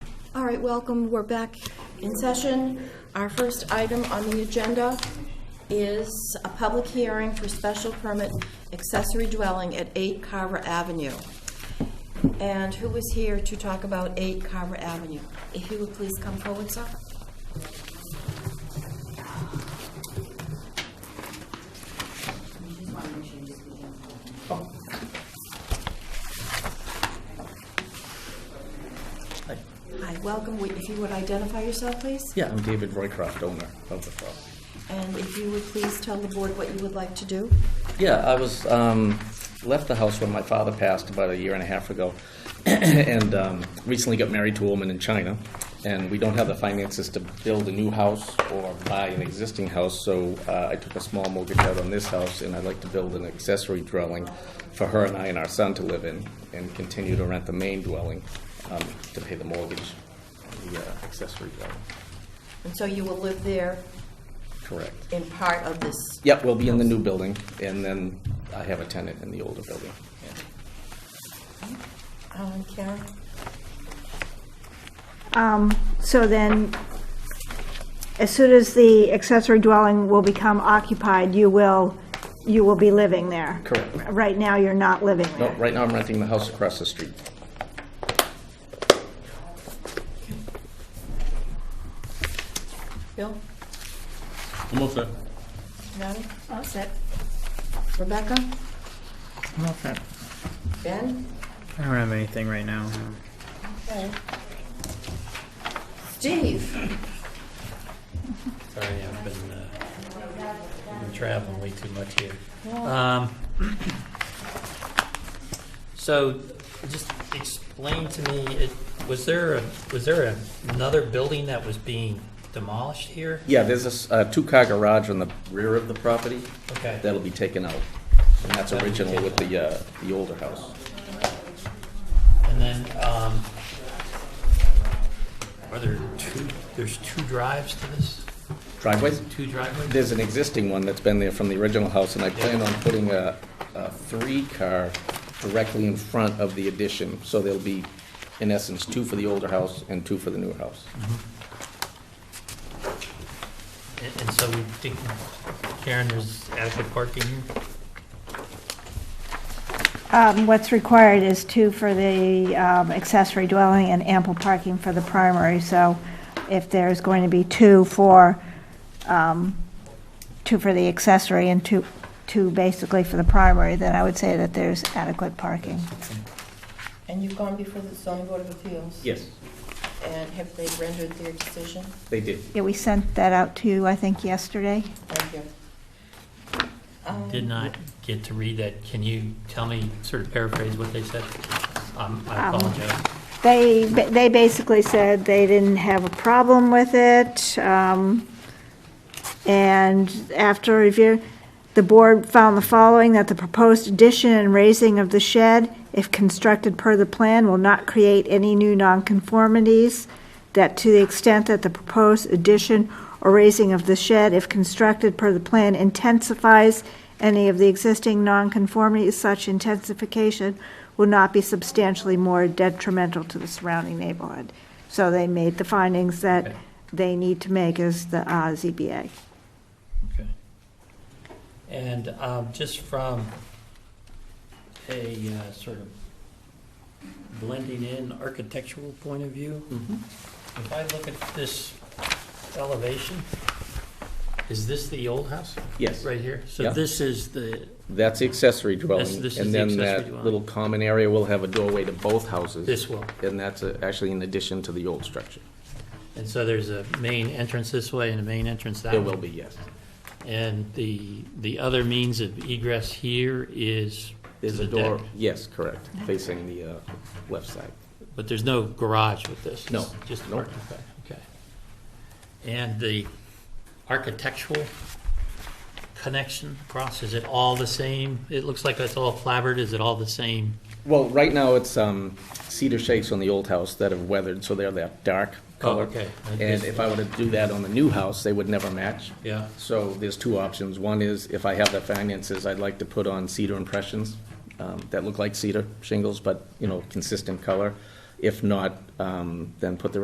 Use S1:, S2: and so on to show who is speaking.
S1: All right, welcome. We're back in session. Our first item on the agenda is a public hearing for special permit accessory dwelling at 8 Carver Avenue. And who is here to talk about 8 Carver Avenue? If you would please come forward, sir.
S2: Hi.
S1: Hi, welcome. We- If you would identify yourself, please?
S2: Yeah, I'm David Roycroft, owner of the property.
S1: And if you would please tell the board what you would like to do?
S2: Yeah, I was, um, left the house when my father passed about a year and a half ago, and um, recently got married to a woman in China, and we don't have the finances to build a new house or buy an existing house, so uh, I took a small mortgage out on this house, and I'd like to build an accessory dwelling for her and I and our son to live in, and continue to rent the main dwelling um, to pay the mortgage, on the uh, accessory dwelling.
S1: And so you will live there
S2: Correct.
S1: in part of this
S2: Yep, we'll be in the new building, and then I have a tenant in the older building.
S1: Um, Karen?
S3: Um, So then, as soon as the accessory dwelling will become occupied, you will, you will be living there?
S2: Correct.
S3: Right now, you're not living
S2: No,
S3: there?
S2: right now I'm renting the house across the street.
S1: Bill?
S4: I'm all set.
S1: Natalie? All set. Rebecca?
S5: I'm all set.
S1: Ben?
S5: I don't have anything right now. no.
S1: Okay. Steve?
S6: Sorry, I've been, uh, been traveling way too much here. Um, so, just explain to me, it, was there a, was there another building that was being demolished here?
S2: Yeah, there's a s- a two-car garage on the rear of the property.
S6: Okay.
S2: That'll be taken out, and that's
S6: That'll be
S2: original
S6: taken
S2: with the, uh, the older house.
S6: And then, um, are there two, there's two drives to this?
S2: Driveways?
S6: Two driveways?
S2: There's an existing one that's been there from the original house, and I plan on putting a, a three-car directly in front of the addition, so there'll be, in essence, two for the older house and two for the newer house.
S6: And, and so we think, Karen, there's adequate parking here?
S3: Um, What's required is two for the um, accessory dwelling and ample parking for the primary, so if there's going to be two for, um, two for the accessory and two, two basically for the primary, then I would say that there's adequate parking.
S1: And you've gone before the zoning board of appeals?
S2: Yes,
S1: And have they rendered their decision?
S2: they did.
S3: Yeah, we sent that out to you, I think, yesterday.
S1: Thank you. Um,
S6: Did not get to read that. Can you tell me, sort of paraphrase what they said? Um, I
S3: Um,
S6: apologize.
S3: They, they basically said they didn't have a problem with it, um, and after review, the board found the following, that the proposed addition and raising of the shed, if constructed per the plan, will not create any new nonconformities, that to the extent that the proposed addition or raising of the shed, if constructed per the plan, intensifies any of the existing nonconformities, such intensification will not be substantially more detrimental to the surrounding neighborhood. So they made the findings that
S6: Okay.
S3: they need to make as the uh, ZBA.
S6: Okay. And um, just from a uh, sort of blending in architectural point of view,
S2: Mm-hmm.
S6: if I look at this elevation, is this the old house
S2: Yes.
S6: right here? So
S2: Yeah.
S6: this is the,
S2: That's the accessory
S6: That's-
S2: dwelling,
S6: this is
S2: and
S6: the
S2: then
S6: accessory
S2: that
S6: dwelling.
S2: little common area will have a doorway to both houses.
S6: this one.
S2: And that's uh, actually in addition to the old structure.
S6: And so there's a main entrance this way and a main entrance that way.
S2: There will be, yes.
S6: And the, the other means of egress here is to
S2: There's a
S6: the
S2: door,
S6: deck.
S2: yes, correct, facing the uh, left side.
S6: But there's no garage with this?
S2: No.
S6: It's Just
S2: Nope.
S6: parking, okay. And the architectural connection across, is it all the same? It looks like it's all flabbered, is it all the same?
S2: Well, right now, it's um, cedar shakes on the old house that have weathered, so they're that dark
S6: Oh,
S2: color.
S6: okay. I
S2: And
S6: guess-
S2: if I were to do that on the new house, they would never match.
S6: Yeah.
S2: So there's two options. One is, if I have the finances, I'd like to put on cedar impressions um, that look like cedar shingles, but, you know, consistent color. If not, um, then put the